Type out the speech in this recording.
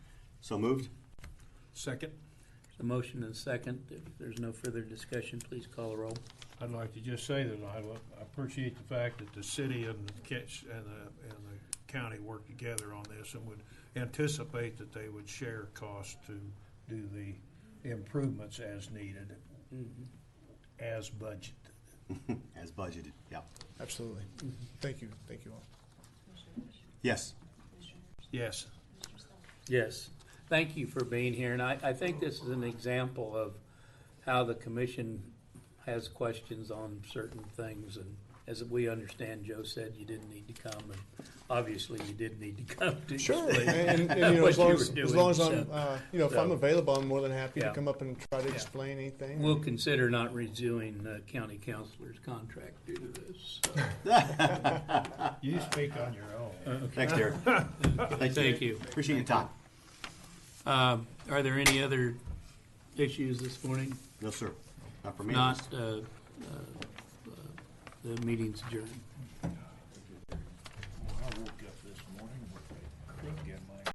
So moved? Second, The motion and second. If there's no further discussion, please call a roll. I'd like to just say that I wa- I appreciate the fact that the city and the catch, and the, and the county work together on this and would anticipate that they would share costs to do the improvements as needed, Mm-hmm. as budgeted. As budgeted, yeah. Absolutely. Thank you, thank you all. Yes. Yes, Yes, thank you for being here, and I, I think this is an example of how the commission has questions on certain things, and as we understand, Joe said you didn't need to come, and obviously you did need to come to Sure. explain And, and, you know, what as long you as, were as long doing, as I'm, so uh, you know, if I'm so- available, I'm more than happy to Yeah. come up and try to Yeah. explain anything. We'll consider not renewing uh, county councilor's contract due to this. so. you speak on your own. Thanks, Derek. Thank you. Appreciate your time. Um, Are there any other issues this morning? No, sir. Not for me. Not, uh, uh, uh, the meeting's adjourned.